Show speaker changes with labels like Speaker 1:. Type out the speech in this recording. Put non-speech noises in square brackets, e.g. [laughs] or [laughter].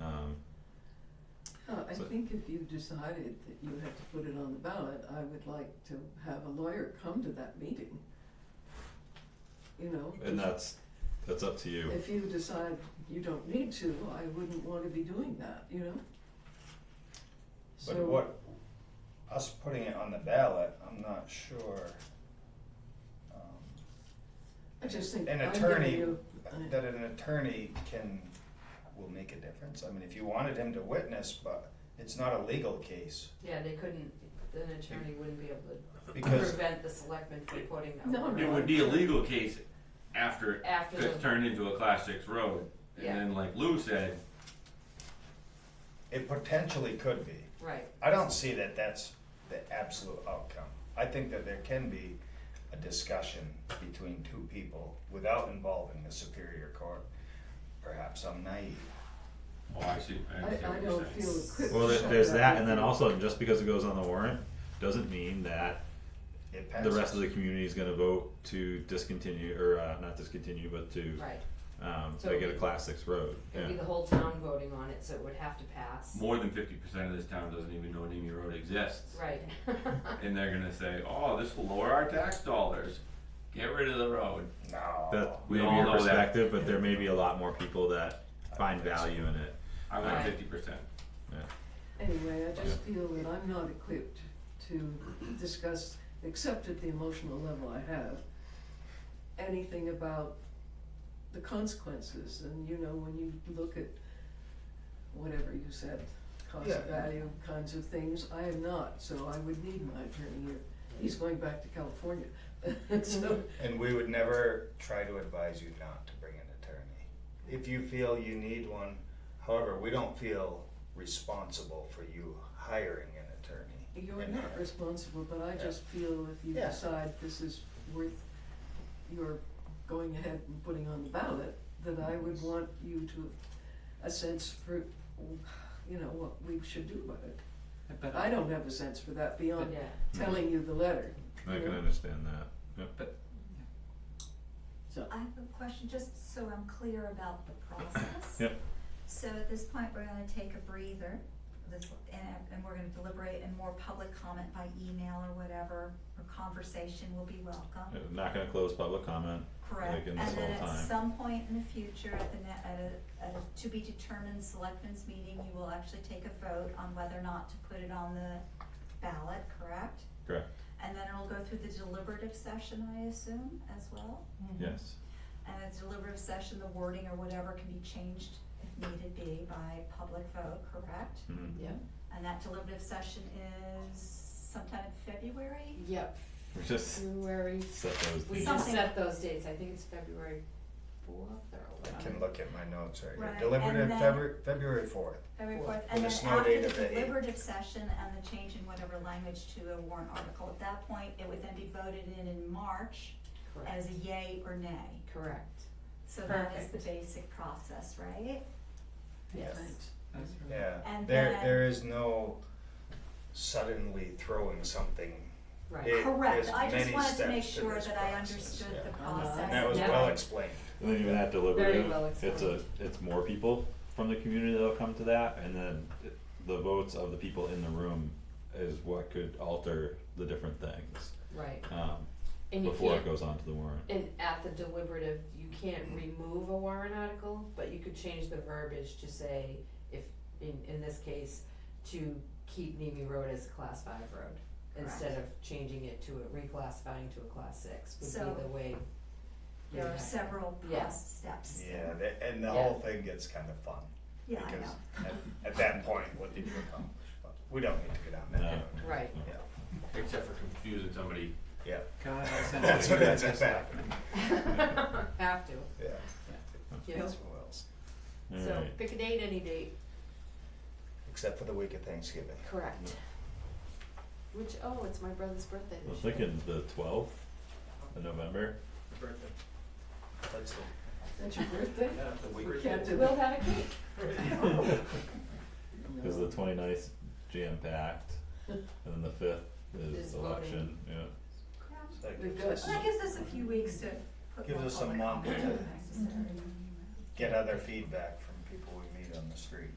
Speaker 1: Um,
Speaker 2: I
Speaker 1: So-
Speaker 2: think if you decided that you had to put it on the ballot, I would like to have a lawyer come to that meeting. You know?
Speaker 1: And that's, that's up to you.
Speaker 2: If you decide you don't need to, I wouldn't wanna be doing that, you know?
Speaker 3: But
Speaker 2: So-
Speaker 3: what, us putting it on the ballot, I'm not sure. um,
Speaker 2: I just think
Speaker 3: An
Speaker 2: I'm giving
Speaker 3: attorney,
Speaker 2: you- I-
Speaker 3: that an attorney can, will make a difference. I mean, if you wanted him to witness, but it's not a legal case.
Speaker 4: Yeah, they couldn't, an attorney wouldn't be able to
Speaker 3: Because,
Speaker 4: prevent the selectmen from putting that
Speaker 2: No,
Speaker 4: word
Speaker 2: no.
Speaker 5: It would
Speaker 4: on.
Speaker 5: be a legal case after it
Speaker 4: After the-
Speaker 5: gets turned into a class six road. And
Speaker 4: Yeah.
Speaker 5: then like Lou said,
Speaker 3: it potentially could be.
Speaker 4: Right,
Speaker 3: I don't see that that's the absolute outcome. I think that there can be a discussion between two people without involving the Superior Court. Perhaps I'm naive.
Speaker 5: oh, I see, I
Speaker 2: I,
Speaker 5: understand
Speaker 2: I don't
Speaker 5: what you're saying.
Speaker 2: feel equipped.
Speaker 1: Well,
Speaker 2: to
Speaker 1: there-
Speaker 2: shut
Speaker 1: there's that, and then
Speaker 2: meeting.
Speaker 1: also, just because it goes on the warrant, doesn't mean that
Speaker 3: It
Speaker 1: the
Speaker 3: passes.
Speaker 1: rest of the community is gonna vote to discontinue, or, uh, not discontinue, but to,
Speaker 4: right.
Speaker 1: um,
Speaker 4: So
Speaker 1: they
Speaker 4: it
Speaker 1: get a
Speaker 4: would-
Speaker 1: class six road,
Speaker 4: It'd be
Speaker 1: yeah.
Speaker 4: the whole town voting on it, so it would have to pass.
Speaker 5: More than fifty percent of this town doesn't even know Nimi Road exists.
Speaker 4: Right. [laughs]
Speaker 5: And they're gonna say, oh, this will lower our tax dollars, get rid of the road.
Speaker 3: No.
Speaker 1: That
Speaker 5: We
Speaker 1: may
Speaker 5: all
Speaker 1: be a
Speaker 5: know that.
Speaker 1: perspective, but there may be a lot more people that find value in it,
Speaker 5: I want
Speaker 4: Right.
Speaker 5: fifty percent.
Speaker 1: yeah.
Speaker 2: Anyway, I just feel that I'm not equipped to discuss, except at the emotional level I have, anything about the consequences. And you know, when you look at whatever you said, cost
Speaker 3: Yeah.
Speaker 2: value kinds of things, I am not, so I would need my attorney here. He's going back to California. [laughs] so,
Speaker 3: And we would never try to advise you not to bring an attorney. If you feel you need one, however, we don't feel responsible for you hiring an attorney.
Speaker 2: You're
Speaker 3: in
Speaker 2: not
Speaker 3: our-
Speaker 2: responsible, but I
Speaker 3: Yeah.
Speaker 2: just feel if you
Speaker 3: Yeah.
Speaker 2: decide this is worth your going ahead and putting on the ballot, that I would want you to, a sense for, you know, what we should do about it.
Speaker 6: But,
Speaker 2: I don't have a sense for that
Speaker 4: Yeah,
Speaker 2: beyond telling you the letter,
Speaker 1: I can
Speaker 4: Mm-hmm.
Speaker 2: Yeah.
Speaker 1: understand that, yep.
Speaker 6: but
Speaker 2: so.
Speaker 7: I have a question, just so I'm clear about the process.
Speaker 1: Yep.
Speaker 7: So at this point, we're gonna take a breather, this, and, and we're gonna deliberate and more public comment by email or whatever, or conversation will be welcome.
Speaker 1: I'm Not gonna close public comment,
Speaker 7: Correct,
Speaker 1: Like in
Speaker 7: and
Speaker 1: this
Speaker 7: then
Speaker 1: whole
Speaker 7: at
Speaker 1: time.
Speaker 7: some point in the future, at the ne- at a, at a to be determined selectmen's meeting, you will actually take a vote on whether or not to put it on the ballot, correct?
Speaker 1: correct,
Speaker 7: And then it'll go through the deliberative session, I assume, as well?
Speaker 4: Mm-hmm.
Speaker 1: yes,
Speaker 7: And at the deliberative session, the wording or whatever can be changed if needed be by public vote, correct?
Speaker 1: mhm.
Speaker 4: yeah,
Speaker 7: And that deliberative session is sometime in February?
Speaker 4: yep,
Speaker 1: we just
Speaker 4: February,
Speaker 1: set those
Speaker 4: Mm-hmm. we
Speaker 1: dates.
Speaker 4: just
Speaker 7: Something.
Speaker 4: set those dates, I think it's February fourth
Speaker 3: I
Speaker 4: or
Speaker 3: can look at my notes right here.
Speaker 7: Right,
Speaker 3: Deliberative
Speaker 7: and then-
Speaker 3: February, February fourth.
Speaker 7: February
Speaker 4: Fourth.
Speaker 7: fourth, and
Speaker 3: With a
Speaker 7: then
Speaker 3: snow
Speaker 7: after
Speaker 3: date
Speaker 7: the
Speaker 3: of the eighth.
Speaker 7: deliberative session and the change in whatever language to a warrant article, at that point, it would then be voted in in March
Speaker 4: correct,
Speaker 7: as a yay or nay.
Speaker 4: correct,
Speaker 7: So that is the
Speaker 4: Perfect.
Speaker 7: basic process, right?
Speaker 4: yes.
Speaker 2: Thanks.
Speaker 6: that's right.
Speaker 3: Yeah,
Speaker 7: Mm-hmm. And
Speaker 3: there,
Speaker 7: then-
Speaker 3: there is no suddenly throwing something.
Speaker 4: Right.
Speaker 3: It-
Speaker 7: Correct,
Speaker 3: there's
Speaker 7: I just
Speaker 3: many
Speaker 7: wanted to
Speaker 3: steps
Speaker 7: make
Speaker 3: to
Speaker 7: sure
Speaker 3: this
Speaker 7: that I
Speaker 3: process,
Speaker 7: understood
Speaker 3: yeah.
Speaker 7: the
Speaker 3: And
Speaker 7: process.
Speaker 3: And that was
Speaker 4: Uh-huh. Yeah.
Speaker 3: well explained.
Speaker 1: And then even that deliberative,
Speaker 4: well
Speaker 1: it's a,
Speaker 4: explained.
Speaker 1: it's more people from the community that'll come to that, and then it- the votes of the people in the room is what could alter the different things,
Speaker 4: Right,
Speaker 1: um,
Speaker 4: and you
Speaker 1: before it
Speaker 4: can't,
Speaker 1: goes on to the warrant.
Speaker 4: and at the deliberative, you can't remove a warrant article, but you could change the verbiage to say, if, in, in this case, to keep Nimi Road as a class five road, instead of changing it to, a reclassifying to a class six,
Speaker 7: So-
Speaker 4: would be the way.
Speaker 7: There are
Speaker 4: Yeah.
Speaker 7: several
Speaker 4: Yeah.
Speaker 7: process steps.
Speaker 3: Yeah, the- and the whole thing gets kind of fun.
Speaker 7: Yeah, I know.
Speaker 3: Because at, at that point, what did you accomplish? But We don't need to go down that
Speaker 1: No.
Speaker 3: road.
Speaker 4: [laughs] Right.
Speaker 3: Yeah,
Speaker 5: Except for confusing somebody.
Speaker 3: yeah.
Speaker 6: God, I sent
Speaker 3: That's
Speaker 6: you
Speaker 3: what ends up
Speaker 6: this
Speaker 3: happening.
Speaker 4: Have to,
Speaker 3: Yeah.
Speaker 4: you know,
Speaker 3: That's what else.
Speaker 4: so
Speaker 1: Alright,
Speaker 4: pick a date, any date,
Speaker 3: Except for the week of Thanksgiving.
Speaker 4: correct. Which, oh, it's my brother's birthday
Speaker 1: I'm
Speaker 4: this year.
Speaker 1: thinking the twelfth of November,
Speaker 3: That's the,
Speaker 2: That's your birthday?
Speaker 3: the
Speaker 2: We can't do
Speaker 4: We'll
Speaker 2: that.
Speaker 4: have a cake,
Speaker 1: cause the
Speaker 2: No.
Speaker 1: 29th ninth jam packed, and then the fifth
Speaker 4: Is
Speaker 1: is
Speaker 4: voting.
Speaker 1: election, yeah.
Speaker 7: Yeah.
Speaker 2: We've got-
Speaker 7: Well, that gives us a few weeks to put
Speaker 3: Gives
Speaker 7: more
Speaker 3: us a
Speaker 7: public
Speaker 3: month
Speaker 7: comment
Speaker 3: to-
Speaker 7: if necessary.
Speaker 3: Get other feedback from people we meet on the street.